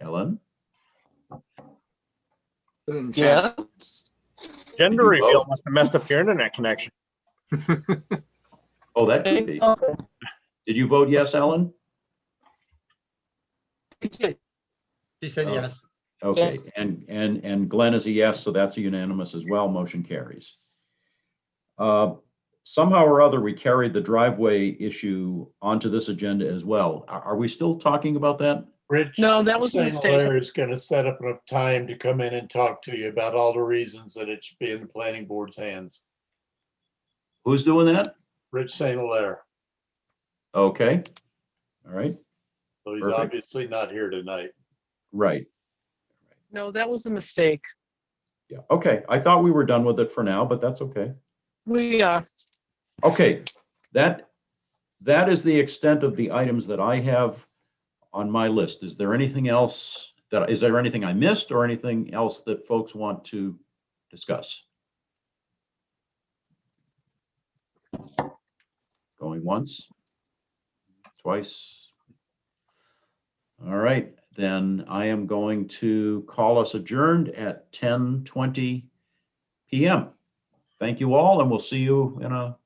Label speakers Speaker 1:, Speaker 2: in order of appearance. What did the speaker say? Speaker 1: Helen?
Speaker 2: Yes.
Speaker 3: Gender
Speaker 1: You
Speaker 3: reveal
Speaker 1: vote.
Speaker 3: must have messed up your internet connection.
Speaker 1: Oh, that could be.
Speaker 2: He
Speaker 1: Did you vote yes, Helen?
Speaker 2: did.
Speaker 4: She said
Speaker 5: Um,
Speaker 1: Oh.
Speaker 4: yes.
Speaker 1: Okay,
Speaker 2: Yes.
Speaker 1: and, and, and Glenn is a yes, so that's unanimous as well. Motion carries. Uh, Somehow or other, we carried the driveway issue onto this agenda as well. Are, are we still talking about that?
Speaker 5: Rich.
Speaker 2: No, that was a
Speaker 5: Singler
Speaker 2: mistake.
Speaker 5: Is gonna set up enough time to come in and talk to you about all the reasons that it should be in the planning board's hands.
Speaker 1: Who's doing that?
Speaker 5: Rich St. Hilaire,
Speaker 1: Okay. All right,
Speaker 5: so he's
Speaker 1: Perfect.
Speaker 5: obviously not here tonight.
Speaker 1: right.
Speaker 2: No, that was a mistake.
Speaker 1: Yeah, okay. I thought we were done with it for now, but that's okay.
Speaker 2: We, uh,
Speaker 1: Okay, that, that is the extent of the items that I have on my list. Is there anything else that, is there anything I missed or anything else that folks want to discuss? Going once, twice. All right, then I am going to call us adjourned at 10:20 PM. Thank you all, and we'll see you in a